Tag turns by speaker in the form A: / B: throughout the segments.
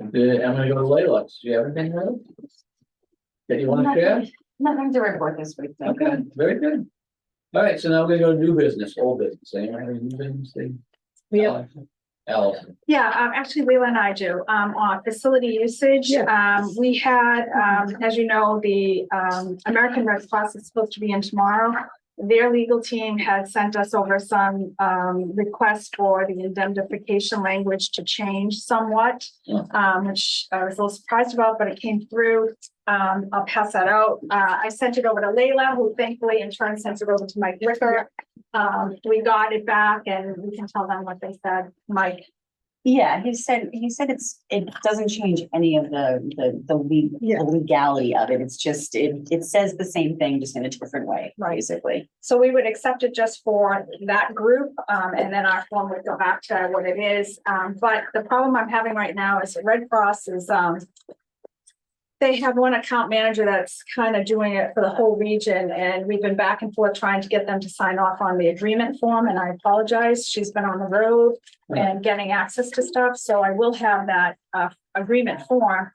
A: I'm gonna go to Layla's. Do you have anything, Layla? That you wanna share?
B: Nothing to report this week. thank you.
A: Okay, very good. All right, so now we're gonna go to new business, old business. Anyone have any new business thing?
C: Yeah.
A: Allison,
D: Yeah, um, actually, Leila and I do, um, on facility usage. Um, we had, um, as you know, the, um, American Red Cross is supposed to be in tomorrow. Their legal team had sent us over some, um, requests for the indemnification language to change somewhat.
A: Yeah.
D: Um, which I was a little surprised about, but it came through. Um, I'll pass that out. Uh, I sent it over to Leila, who thankfully in turn sent it over to Mike Ricker. Um, we got it back and we can tell them what they said. Mike
B: Yeah, he said, he said it's, it doesn't change any of the, the, the le-
C: Yeah.
B: the legality of it. It's just, it, it says the same thing, just in a different way,
D: Right.
B: basically.
D: So we would accept it just for that group, um, and then our form would go back to what it is. Um, but the problem I'm having right now is Red Cross is, um, they have one account manager that's kind of doing it for the whole region, and we've been back and forth trying to get them to sign off on the agreement form, and I apologize. She's been on the road and getting access to stuff, so I will have that, uh, agreement form.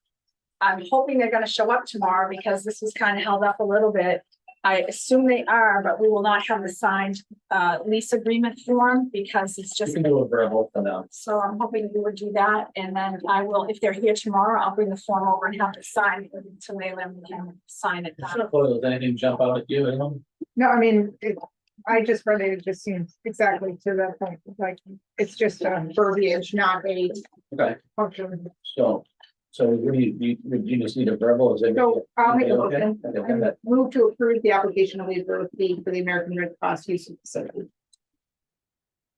D: I'm hoping they're gonna show up tomorrow because this was kind of held up a little bit. I assume they are, but we will not have the signed uh lease agreement form because it's
A: you
D: just.
A: can do a verbal for now.
D: So I'm hoping you would do that and then I will, if they're here tomorrow, I'll bring the form over and have it signed to Leland and can sign it.
C: Uh-huh.
A: It's not close. Does anything jump out at you, anyone?
C: No, I mean, it, I just read it, it just seems exactly to that point, like, it's just a verbiage, not a
A: Okay,
C: function.
A: so, so we, we, we you just need a verbal, is it?
C: So I'll make a
A: Okay,
C: motion,
A: okay, okay, that-
C: move to approve the application of labor fee for the American Red Cross use of facility.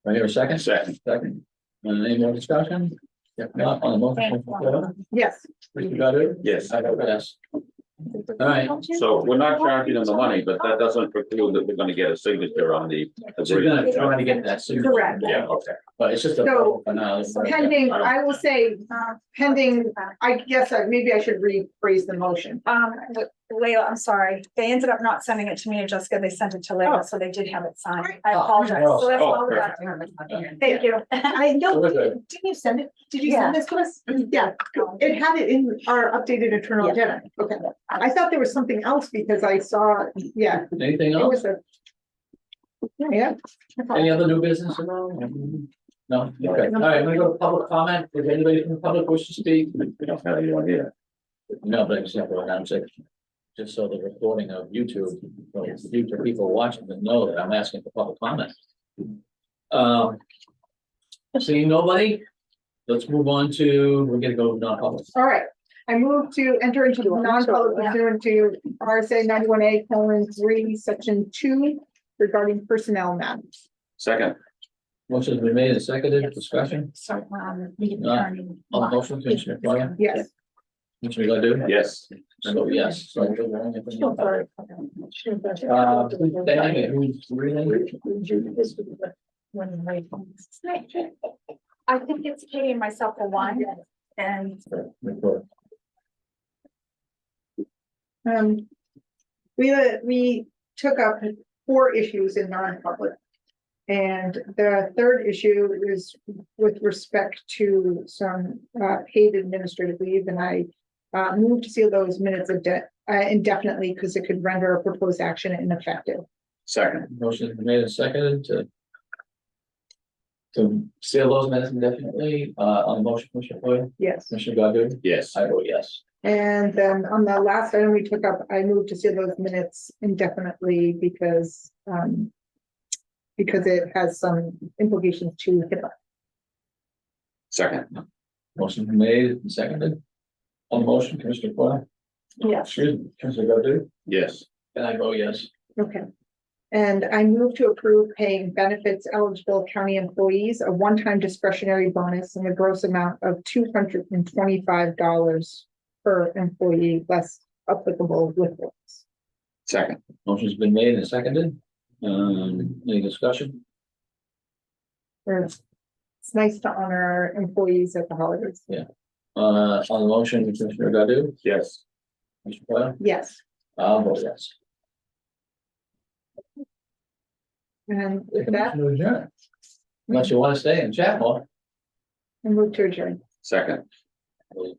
A: Do I hear a second?
E: Second.
A: Second. And any more discussion? If not, on the motion.
C: Yes,
A: Mr. Godu?
E: Yes,
A: I vote yes. All right,
E: so we're not charging them the money, but that doesn't preclude that we're gonna get a signature on the.
A: So you're gonna try to get that soon.
D: Correct.
E: Yeah, okay.
A: But it's just a.
C: So-
A: for now.
C: pending, I will say,
D: Uh,
C: pending, I guess, I- maybe I should rephrase the motion.
D: Um, Leila, I'm sorry. They ended up not sending it to me and Jessica. They sent it to Leila, so they did have it signed. I apologize. So that's all we got. Thank you.
C: I
A: So
C: know,
A: we're good.
C: didn't you send it? Did you
B: Yeah.
C: send this to us? Yeah,
D: Um,
C: it had it in our updated internal
B: Yeah.
C: agenda. Okay, I thought there was something else because I saw, yeah,
A: Anything
C: it
A: else?
C: was a. Yeah.
A: Any other new business at all? No, okay, all right, I'm gonna go to public comment. If anybody from the public wishes to speak,
E: We don't have anyone here.
A: no, but it's not what I'm saying. Just so the recording of YouTube, so future people watching to know that I'm asking for public comment. Um. Seeing nobody, let's move on to, we're gonna go non-public.
C: All right, I move to enter into non-public pursuant to RSA ninety-one A colon three, section two regarding personnel matters.
E: Second,
A: Motion's been made and seconded, discussion,
D: So, um.
A: on the motion, Commissioner Foil,
C: Yes,
A: Commissioner Godu?
E: yes,
A: I vote yes. So we're going to- Uh, Diana, who's reading?
D: I think it's Katie and myself for one and
A: Record.
C: um. We, uh, we took up four issues in non-public. And the third issue is with respect to some uh paid administrative leave and I. Uh, moved to seal those minutes of debt indefinitely because it could render a proposed action ineffective.
E: second,
A: Motion's been made and seconded to. To seal those minutes indefinitely, uh, on the motion, Commissioner Foil,
C: Yes.
A: Commissioner Godu?
E: yes,
A: I vote yes.
C: And then on the last item we took up, I moved to see those minutes indefinitely because, um. Because it has some implications to HIPAA.
E: second,
A: Motion's been made and seconded. On the motion, Commissioner Foil,
D: yes.
A: excuse me, Commissioner Godu?
E: yes,
A: And I vote yes.
C: Okay. And I move to approve paying benefits eligible county employees a one-time discretionary bonus in the gross amount of two hundred and twenty-five dollars per employee less applicable withholds.
E: second,
A: Motion's been made and seconded. Um, any discussion?
C: It's it's nice to honor employees at the holidays.
A: Uh, on the motion, Commissioner Godu?
E: yes.
A: Commissioner Foil?
C: Yes.
A: I vote yes.
C: And with that,
A: Unless you wanna stay and chat more.
C: I move to adjourn.
E: Second,
A: We'll